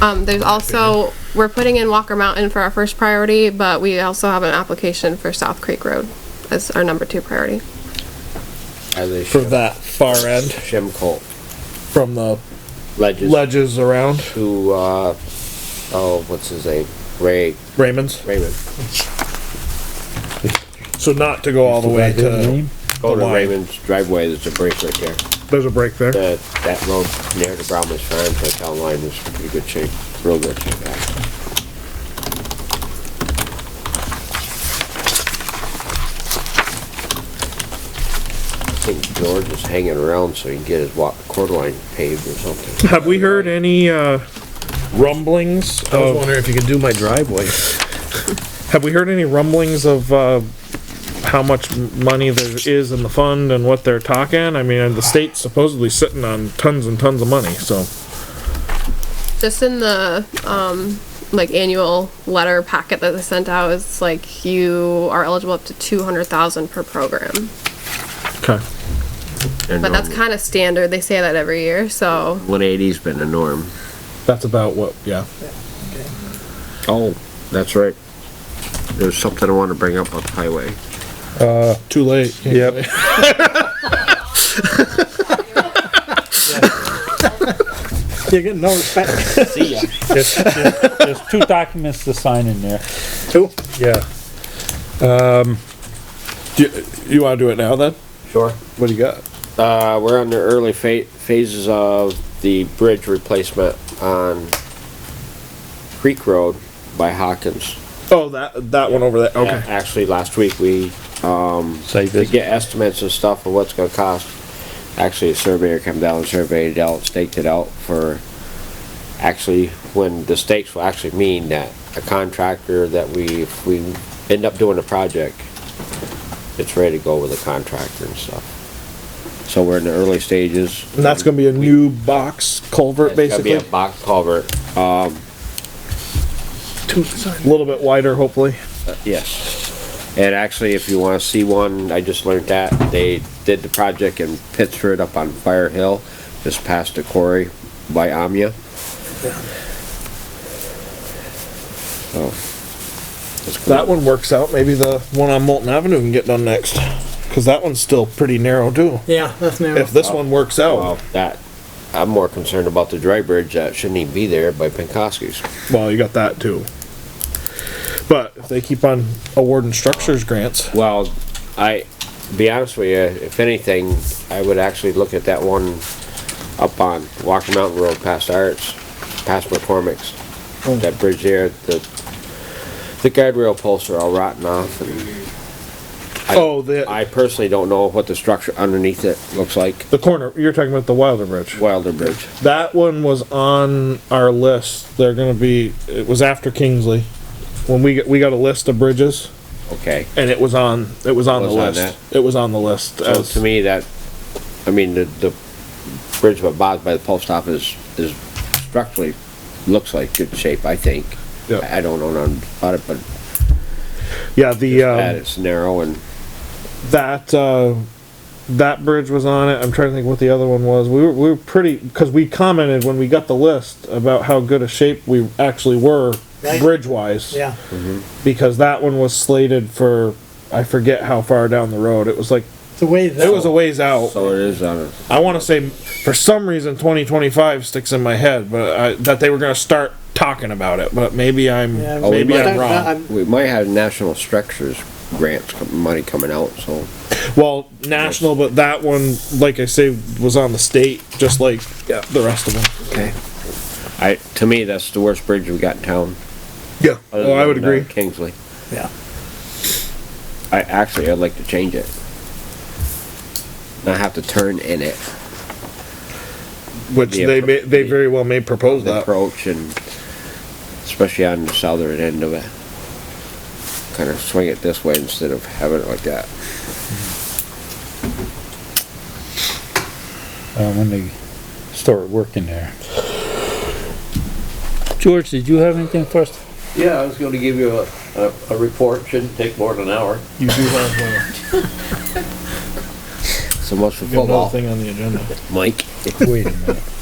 Um, there's also, we're putting in Walker Mountain for our first priority, but we also have an application for South Creek Road as our number two priority. As a for shim that far end Shimcolt from the ledges ledges around to, uh, oh, what's his name? Ray, Raymond's. Raymond. So not to go all the way to, Go to line. Raymond's driveway, there's a break right there. there's a break there. That, that road near the Brownman's Farm, the town line is in pretty good shape, real good shape. actually. I think George is hanging around so he can get his wa, quarter line paved or something. Have we heard any, uh, rumblings I was of, wondering if you could do my driveway. have we heard any rumblings of, uh, how much m- money there is in the fund and what they're talking? I mean, the state's supposedly sitting on tons and tons of money, so. Just in the, um, like annual letter packet that they sent out, it's like you are eligible up to two hundred thousand per program. Okay. But that's kind of standard. They say that every year, so um, One eighty's been the norm. That's about what, yeah. Oh, that's right. There's something I wanna bring up on the highway. Too late. Yep. You're getting no respect. See ya. There's, there's- there's two documents to sign in there. Yeah. Um, do you, you wanna do it now then? Sure. What do you got? Uh, we're on the early fa- phases of the bridge replacement on Creek Road by Hawkins. Oh, that, that one over there, Yeah, okay. Uh, Actually, last week, we, um, Save to get estimates and stuff of what's gonna cost, actually, a surveyor come down and surveyed it out, staked it out for, actually, when the stakes will actually mean that a contractor that we, if we end up doing a project, it's ready to go with a contractor and stuff. So we're in the early stages. And that's gonna be a new box culvert, It's gonna be basically, a box culvert, a little bit wider, hopefully. yes. And actually, if you wanna see one, I just learned that, they did the project in Pittsford up on Fire Hill, just past the quarry by Amia. So. it's cool. That one works out, maybe the one on Molten Avenue can get done next, cause that one's still pretty narrow too. Yeah, that's narrow. If this one works Well, out, that, I'm more concerned about the dry bridge that shouldn't even be there by Pankowski's. well, you got that too. But if they keep on awarding structures grants, Well, I, be honest with you, if anything, I would actually look at that one up on Walker Mountain Road past Arts, past McCormick's. That bridge there, the, the guardrail posts are all rotten off and I- oh, the, I personally don't know what the structure underneath it looks like. the corner, you're talking about the Wilder Bridge. Wilder Bridge. That one was on our list, they're gonna be, it was after Kingsley, when we, got- we got a list of bridges, Okay. and it was on, it was on the Was on list. It was on the list So as, to me, that, I mean, the, the bridge by Bob by the post office is structurally, looks like good shape, I think. Yeah. I I don't know nothing about it, but yeah, the, um. that it's narrow and that uh, that bridge was on it. I'm trying to think what the other one was. We were we were pretty because we commented when we got the list about how good a shape we actually were Right. bridge wise. Yeah, Because that one was slated for I forget how far down the road. It was like it's a ways it was out. a ways out. so it is on a, I want to say for some reason 2025 sticks in my head, but I, that they were going to start talking about it. But maybe I'm Yeah, Oh, we maybe might- I'm wrong. I'm- we might have national structures grants com- money coming out, so. Well, national, but that one, like I say, was on the state, just like the rest of them. Okay. I, to me, that's the worst bridge we got in town. Yeah. other Oh, I than, would uh, agree. Kingsley. Yeah. I, actually, I'd like to change it. Not have to turn in it, Which the they appro- may, they very well may propose the that. approach and especially on the southern end of it. Kind of swing it this way instead of having it like that. Uh, when they start working there. George, did you have anything for us? Yeah, I was gonna give you a, a, a report, shouldn't take more than an hour. You do have So much for another football, thing on the agenda. Mike. Wait a minute.